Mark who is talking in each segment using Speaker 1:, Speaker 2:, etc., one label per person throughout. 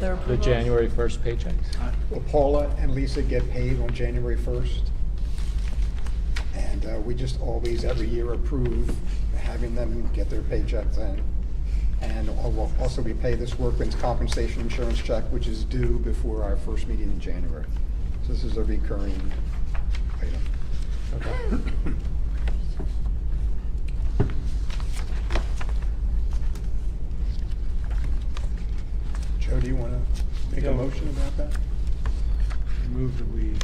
Speaker 1: their approval?
Speaker 2: The January 1st paychecks?
Speaker 3: Well, Paula and Lisa get paid on January 1st. And uh, we just always, every year, approve having them get their paychecks in. And al- also, we pay this workman's compensation insurance check, which is due before our first meeting in January. So this is a recurring item. Joe, do you want to make
Speaker 4: Yeah.
Speaker 3: a motion about that?
Speaker 4: Move that we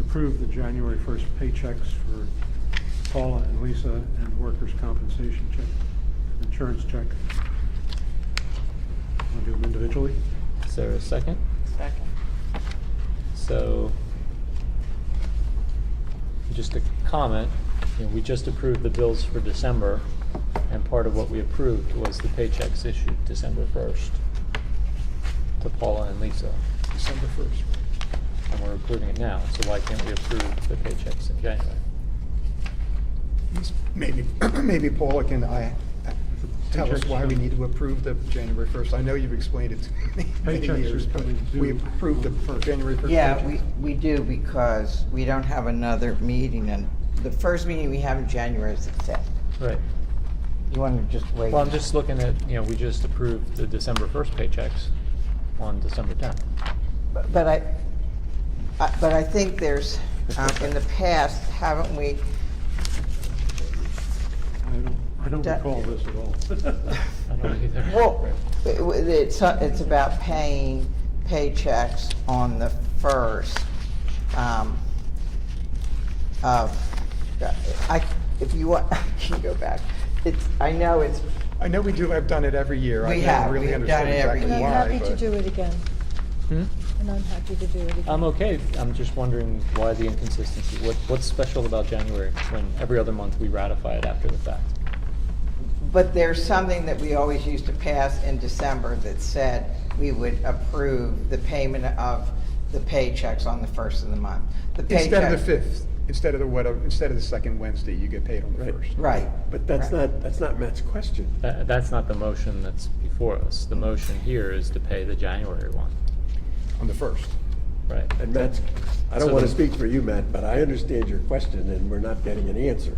Speaker 4: approve the January 1st paychecks for Paula and Lisa and workers' compensation check, insurance check. Want to do them individually?
Speaker 2: Is there a second?
Speaker 1: Second.
Speaker 2: So, just a comment, you know, we just approved the bills for December, and part of what we approved was the paychecks issued December 1st to Paula and Lisa,
Speaker 3: December 1st.
Speaker 2: and we're approving it now, so why can't we approve the paychecks in January?
Speaker 3: Maybe, maybe Paula can, I, tell us why we need to approve the January 1st. I know you've explained it to me many
Speaker 4: Paychecks are
Speaker 3: years, but
Speaker 4: coming due
Speaker 3: we approved the
Speaker 4: on the
Speaker 3: fir-
Speaker 4: 1st.
Speaker 3: January 1st.
Speaker 5: Yeah,
Speaker 3: paycheck.
Speaker 5: we, we do because we don't have another meeting and the first meeting we have in January is the fifth.
Speaker 2: Right.
Speaker 5: You wanna just wait?
Speaker 2: Well, I'm just looking at, you know, we just approved the December 1st paychecks on December 10th.
Speaker 5: But but I, I- but I think there's, um, in the past, haven't we,
Speaker 4: I don't, I don't
Speaker 5: That-
Speaker 4: recall this at all.
Speaker 2: I don't either.
Speaker 5: well, it- it- it's, it's about paying paychecks on the first um, of, I, if you want, I can go back. It's, I know it's
Speaker 3: I know we do, I've done it every year. I
Speaker 5: We
Speaker 3: don't
Speaker 5: have.
Speaker 3: really
Speaker 5: We've
Speaker 3: understand
Speaker 5: done it every
Speaker 3: exactly
Speaker 1: And I'm
Speaker 5: year.
Speaker 3: why,
Speaker 1: happy to
Speaker 3: but-
Speaker 1: do it again,
Speaker 2: Hmm?
Speaker 1: and I'm happy to do it again.
Speaker 3: Um,
Speaker 2: I'm okay, I'm just wondering why the inconsistency, what, what's special about January, when every other month we ratify it after the fact?
Speaker 5: But there's something that we always used to pass in December that said we would approve the payment of the paychecks on the first of the month. The
Speaker 3: Instead of the
Speaker 5: paycheck-
Speaker 3: 5th, instead of the, what, instead of the second Wednesday, you get paid on the
Speaker 6: Right.
Speaker 3: 1st.
Speaker 5: Right.
Speaker 6: But that's
Speaker 5: Right.
Speaker 6: not, that's not Matt's question.
Speaker 2: Tha- that's not the motion that's before us, the motion here is to pay the January one,
Speaker 3: On the 1st.
Speaker 2: right?
Speaker 6: And Matt's, I don't
Speaker 2: So
Speaker 6: want to
Speaker 2: then-
Speaker 6: speak for you, Matt, but I understand your question, and we're not getting an answer.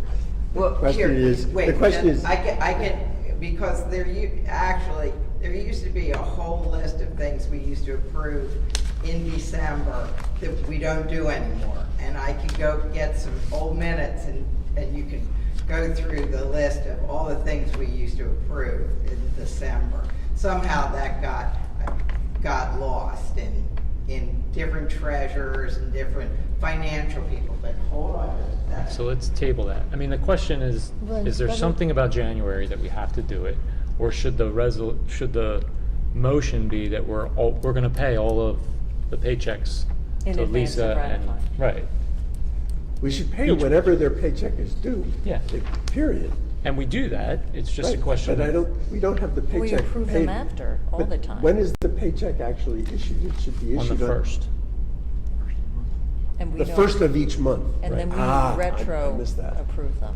Speaker 5: Well, here,
Speaker 6: question is- the
Speaker 5: wait,
Speaker 6: question
Speaker 5: then
Speaker 6: is-
Speaker 5: I can, I can, because there you, actually, there used to be a whole list of things we used to approve in December that we don't do anymore. And I could go get some old minutes and, and you can go through the list of all the things we used to approve in December. Somehow that got, got lost in, in different treasurers and different financial people, but hold on, that's.
Speaker 2: So let's table that. I mean, the question is,
Speaker 1: Well,
Speaker 2: is there
Speaker 1: better-
Speaker 2: something about January that we have to do it? Or should the resol, should the motion be that we're all, we're gonna pay all of the paychecks
Speaker 1: In
Speaker 2: to
Speaker 1: advance
Speaker 2: Lisa
Speaker 1: of
Speaker 2: and,
Speaker 1: ratifying.
Speaker 2: right?
Speaker 6: We should pay
Speaker 2: Each-
Speaker 6: whenever their paycheck is due.
Speaker 2: Yeah.
Speaker 6: Period.
Speaker 2: And we do that, it's just a
Speaker 6: Right,
Speaker 2: question.
Speaker 6: But I don't, we don't have the paycheck
Speaker 1: We
Speaker 6: paid.
Speaker 1: approve them after, all
Speaker 6: But
Speaker 1: the time.
Speaker 6: When is the paycheck actually issued? It should be
Speaker 2: On
Speaker 6: issued
Speaker 2: the
Speaker 6: on.
Speaker 2: first.
Speaker 1: And we
Speaker 6: The
Speaker 1: don't-
Speaker 6: first of each month.
Speaker 1: And then we
Speaker 6: Right. Ah, I- I
Speaker 1: retro
Speaker 6: missed that.
Speaker 1: approve them.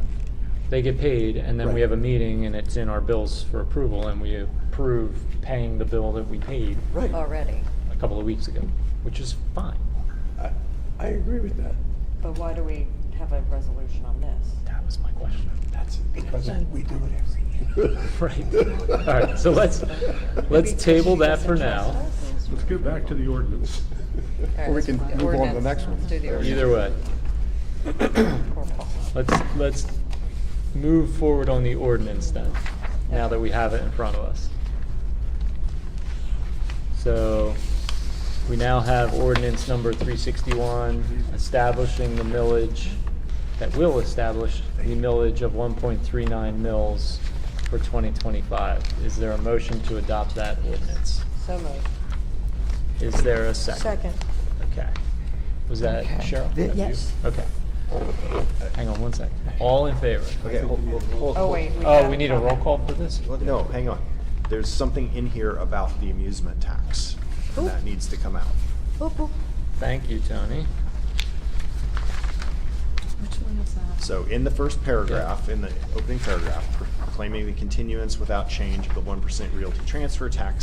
Speaker 2: They get paid, and then we
Speaker 6: Right.
Speaker 2: have a meeting, and it's in our bills for approval, and we approve paying the bill that we paid
Speaker 6: Right.
Speaker 1: already.
Speaker 2: a couple of weeks ago, which is fine.
Speaker 6: I, I agree with that.
Speaker 7: But why do we have a resolution on this?
Speaker 2: That was my question.
Speaker 6: That's.
Speaker 3: Because we do it every year.
Speaker 2: Right. All right, so let's, let's table that for now.
Speaker 4: Let's get back to the ordinance.
Speaker 1: All right,
Speaker 3: Or we
Speaker 1: let's
Speaker 3: can
Speaker 1: move on.
Speaker 3: move on to the
Speaker 1: Ordinance.
Speaker 3: next one.
Speaker 1: Let's do the
Speaker 3: Either
Speaker 1: ordinance.
Speaker 2: Either way, let's, let's move forward on the ordinance then, now that we have it in front of us. So we now have ordinance number 361 establishing the millage, that will establish the millage of 1.39 mills for 2025. Is there a motion to adopt that ordinance?
Speaker 7: So moved.
Speaker 2: Is there a second?
Speaker 1: Second.
Speaker 2: Okay. Was that
Speaker 5: Okay.
Speaker 2: Cheryl?
Speaker 5: Th-
Speaker 2: That you?
Speaker 1: yes.
Speaker 2: Okay. Hang on one sec. All in favor?
Speaker 8: Okay, hold, hold, hold.
Speaker 7: Oh, wait.
Speaker 2: Oh,
Speaker 7: have
Speaker 2: we need a roll
Speaker 7: comment.
Speaker 2: call for this?
Speaker 8: Well, No, hang on. There's something in here about the amusement tax and that needs to come out.
Speaker 1: Oop, oop.
Speaker 2: Thank you, Tony.
Speaker 8: So in the first paragraph, in the opening paragraph, proclaiming the continuance without change of the one percent realty transfer tax